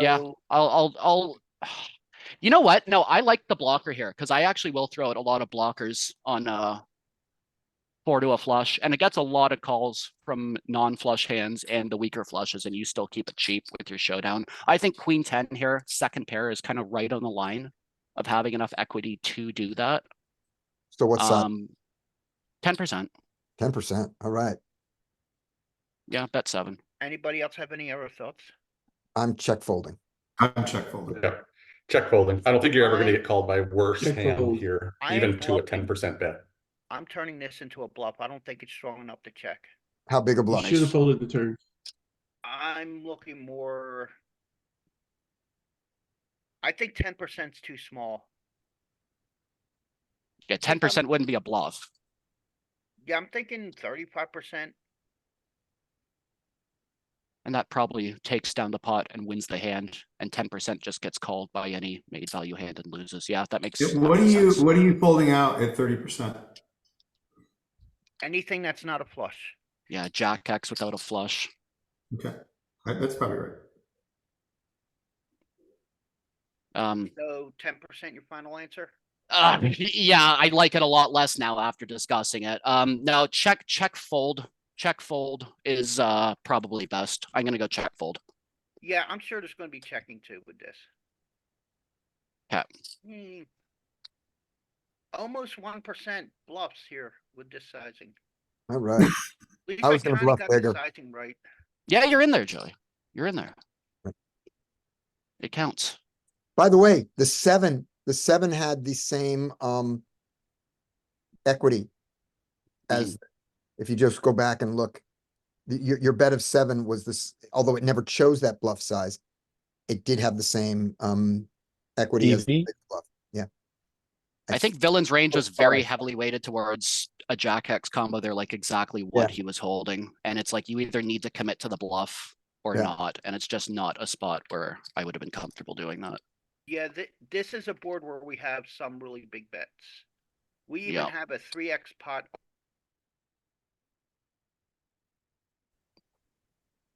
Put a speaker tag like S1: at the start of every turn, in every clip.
S1: Yeah, I'll, I'll, I'll. You know what? No, I like the blocker here because I actually will throw out a lot of blockers on uh four to a flush, and it gets a lot of calls from non-flush hands and the weaker flushes, and you still keep it cheap with your showdown. I think queen ten here, second pair, is kind of right on the line of having enough equity to do that.
S2: So what's that?
S1: Um, ten percent.
S2: Ten percent, alright.
S1: Yeah, bet seven.
S3: Anybody else have any other thoughts?
S2: I'm check folding.
S4: I'm check folding.
S5: Yeah, check folding. I don't think you're ever gonna get called by worse
S4: Check
S5: hand
S4: fold.
S5: here,
S3: I am
S5: even to a
S3: bluffing.
S5: ten percent bet.
S3: I'm turning this into a bluff. I don't think it's strong enough to check.
S2: How big a
S4: You
S2: bluff?
S4: should have folded the turn.
S3: I'm looking more. I think ten percent's too small.
S1: Yeah, ten percent wouldn't be a bluff.
S3: Yeah, I'm thinking thirty-five percent.
S1: And that probably takes down the pot and wins the hand, and ten percent just gets called by any made value hand and loses. Yeah, that makes. that
S4: What are
S1: makes
S4: you,
S1: sense.
S4: what are you folding out at thirty percent?
S3: Anything that's not a flush.
S1: Yeah, Jack X without a flush.
S4: Okay, That- that's probably right.
S1: Um,
S3: So ten percent your final answer?
S1: ah, yeah, I like it a lot less now after discussing it. Um, no, check, check fold, check fold is uh probably best. I'm gonna go check fold.
S3: Yeah, I'm sure there's gonna be checking too with this.
S1: Yeah.
S3: Hmm. Almost one percent bluffs here with this sizing.
S2: Alright,
S3: At least
S2: I was gonna
S3: kinda
S2: bluff
S3: got the
S2: bigger.
S3: Sizing right.
S1: Yeah, you're in there, Joey. You're in there. It counts.
S2: by the way, the seven, the seven had the same, um. Equity. As, if you just go back and look. the- Your, your bet of seven was this, although it never chose that bluff size. It did have the same, um, equity as. the
S6: EV?
S2: big bluff. Yeah.
S1: I think villain's range was very
S2: sorry.
S1: heavily weighted towards a jack X combo. They're like exactly what he was holding. And it's like you either need to commit to the bluff or
S2: Yeah.
S1: not. And it's just not a spot where I would have been comfortable doing that.
S3: Yeah, thi- this is a board where we have some really big bets. We even
S1: Yeah.
S3: have a three X pot.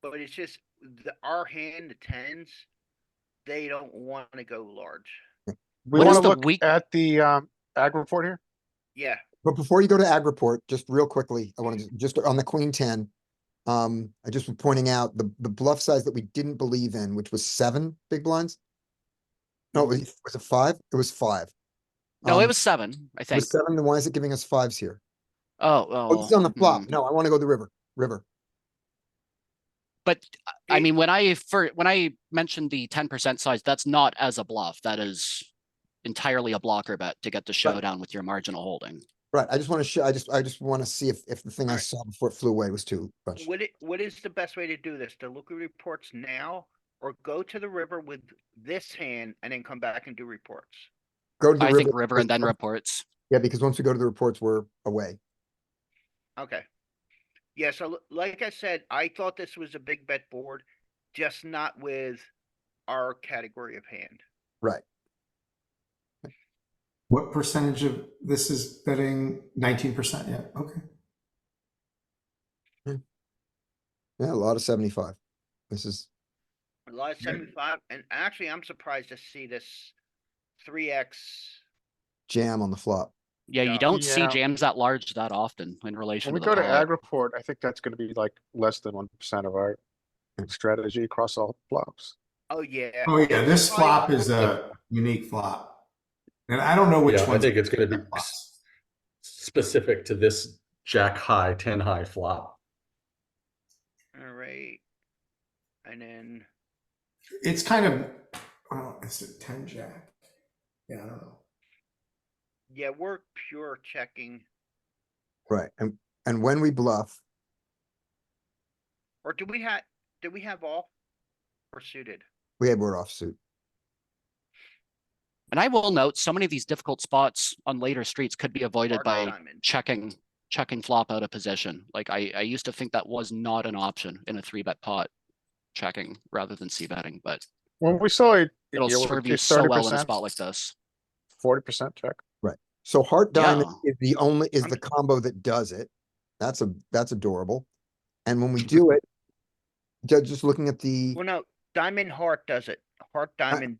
S3: But it's just the, our hand, the tens, they don't wanna go large.
S7: We
S1: What is
S7: wanna
S1: the
S7: look
S1: weak-
S7: at the, um, ag report here.
S3: Yeah,
S2: But before you go to ag report, just real quickly, I want to, just on the queen ten. Um, I just was pointing out the, the bluff size that we didn't believe in, which was seven big blinds. No, it was, was it five? It was five.
S1: No, it
S2: Um,
S1: was seven, I
S2: it
S1: think.
S2: was seven, then why is it giving us fives here?
S1: Oh,
S2: Oh, this is on the flop.
S1: mm.
S2: No, I want to go the river, river.
S1: But I
S3: It-
S1: mean, when I for when I mentioned the ten percent size, that's not as a bluff. That is entirely a blocker bet to get the showdown with your marginal holding.
S2: Right, I just want to show, I just, I just want to see if, if the thing I
S3: Alright.
S2: saw before it flew away was too much.
S3: what it, what is the best way to do this? To look at reports now? Or go to the river with this hand and then come back and do reports?
S2: Go to the
S1: I think
S2: river.
S1: river and then
S2: because-
S1: reports.
S2: Yeah, because once we go to the reports, we're away.
S3: Okay. Yeah, so l- like I said, I thought this was a big bet board, just not with our category of hand.
S2: Right,
S4: What percentage of this is betting nineteen percent? Yeah, okay.
S2: yeah, a lot of seventy-five. This is,
S3: A lot of
S4: Yeah.
S3: seventy-five, and actually, I'm surprised to see this three X.
S2: jam on the flop.
S1: Yeah,
S3: Yeah.
S1: you don't see
S7: Yeah.
S1: jams that large that often in relation
S7: When we
S1: to the
S7: go to
S1: pot.
S7: ag report, I think that's gonna be like less than one percent of our strategy across all flops.
S3: Oh, yeah.
S4: Oh, yeah, this
S3: probably
S4: flop
S3: not
S4: is uh,
S3: worth
S4: a unique flop. And I don't know which
S5: Yeah, I
S4: one.
S5: think it's gonna be s- Specific to this jack high, ten high flop.
S3: it. Alright. And then,
S4: It's kind of, oh, it's a ten jack. Yeah, I don't know.
S3: yeah, we're pure checking,
S2: Right, and, and when we bluff,
S3: or do we have, do we have all? Or suited?
S2: we had word offsuit.
S1: And I will note, so many of these difficult spots on later streets could be avoided
S3: Mark
S1: by
S3: Simon.
S1: checking, checking flop out of position. Like I, I used to think that was not an option in a three bet pot, checking rather than c betting, but
S7: When we saw it.
S1: it'll serve you so well in a spot like this.
S7: Forty percent check.
S2: So heart diamond
S1: Yeah.
S2: is the only, is
S3: I'm-
S2: the combo that does it. That's a, that's adorable. And when we do it, ju- just looking at the,
S3: Well, no, diamond heart does it. heart diamond